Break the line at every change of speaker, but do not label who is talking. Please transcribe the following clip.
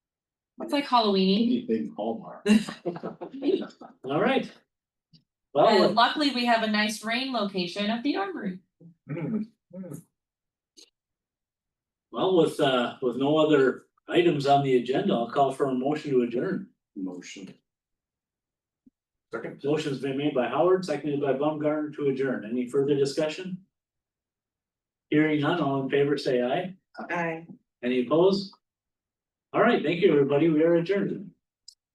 It's like Halloweeny.
Anything Hallmark.
All right.
And
Well,
luckily, we have a nice rain location at the armory.
well, with uh, with no other items on the agenda, I'll call for a motion to adjourn.
Motion. Second.
Motion's been made by Howard, seconded by Baumgartner to adjourn. Any further discussion? Hearing none, all in favor, say aye.
Aye.
Any opposed? All right, thank you, everybody. We are adjourned.